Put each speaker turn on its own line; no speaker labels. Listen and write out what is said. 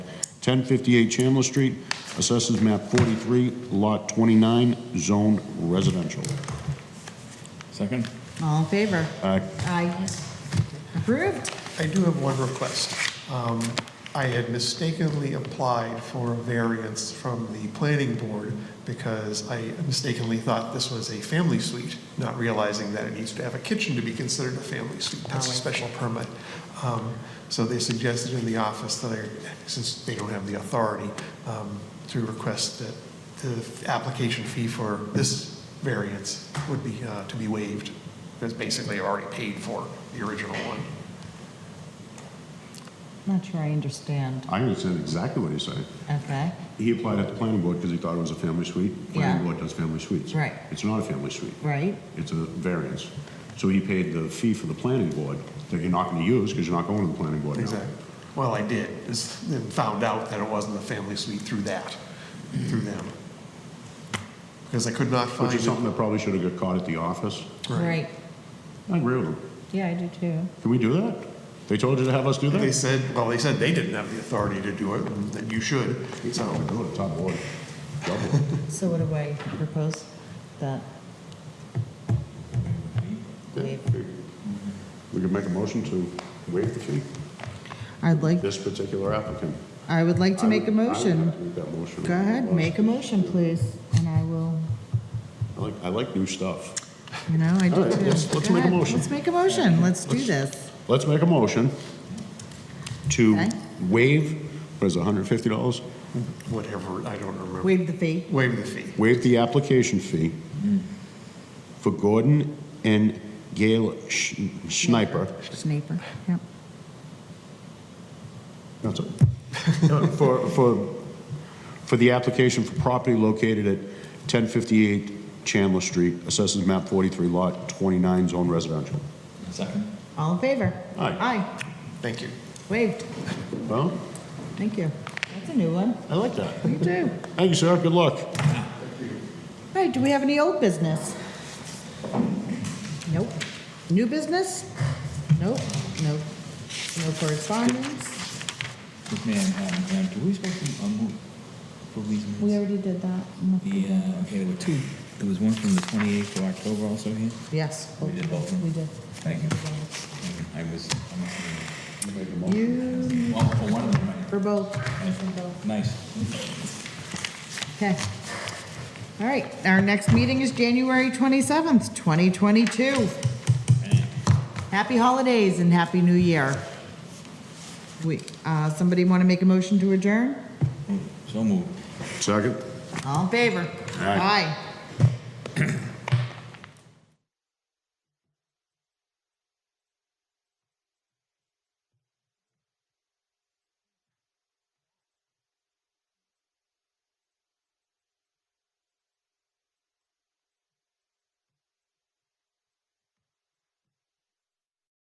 1058 Chandler Street, Assessors Map 43, Lot 29, Zone Residential.
Second?
All in favor?
Aye.
Aye. Approved.
I do have one request. Um, I had mistakenly applied for a variance from the planning board because I mistakenly thought this was a family suite, not realizing that it needs to have a kitchen to be considered a family suite. That's a special permit. Um, So they suggested in the office that I, since they don't have the authority, um, to request that the application fee for this variance would be, uh, to be waived. Because basically I already paid for the original one.
Not sure I understand.
I understand exactly what he's saying.
Okay,
He applied at the planning board because he thought it was a family suite. Planning
Yeah.
board does family suites.
Right.
It's not a family suite.
right?
It's a variance. So he paid the fee for the planning board that you're not going to use because you're not going to the planning board now.
Exactly. Well, I did, is, and found out that it wasn't a family suite through that, through them. Because I could not
Which is something
find,
that probably should have got caught at the office.
Right.
Right.
I agree with him.
Yeah, I do too.
Can we do that? They told you to have us do
they
that?
said, well, they said they didn't have the authority to do it, and that you should, so.
Do it, top board. Job board.
So what do I propose? That? Waive.
We could make a motion to waive the fee,
I'd like,
this particular applicant.
I would like to make a
I would- I would
motion.
make that motion.
Go ahead, make a motion, please, and I will,
I like, I like new stuff.
you know, I do too.
All right, let's- let's
Go
make a
ahead,
motion.
Let's make a motion, let's do this.
Let's make a motion to
Okay.
waive, what is it, $150?
Whatever, I don't remember.
Waive the fee.
Waive the fee.
Waive the application fee
Mm.
for Gordon and Gail Sch- Sniper.
Sniper, yep.
That's it. Uh, For, for, for the application for property located at 1058 Chandler Street, Assessors Map 43, Lot 29, Zone Residential.
Second?
All in favor?
Aye.
Aye,
Thank you.
waived,
Well,
thank you. That's a new one.
I like that.
You do.
Thank you, sir. Good luck.
All right, do we have any old business? Nope. New business? Nope, nope. No correspondence?
This man, um, Graham, do we supposed to, um, move for these
We
minutes?
already did that.
The, uh, okay, there were two. There was one from the twenty-eighth of October also here.
Yes.
We did both of them?
We did.
Thank you. I was, I'm,
You,
well, for one of them, right?
for both.
Nice.
Okay. All right, our next meeting is January 27th, 2022. Happy holidays and happy new year. We, uh, somebody want to make a motion to adjourn?
So moved.
Second?
All in favor?
Aye.
Aye.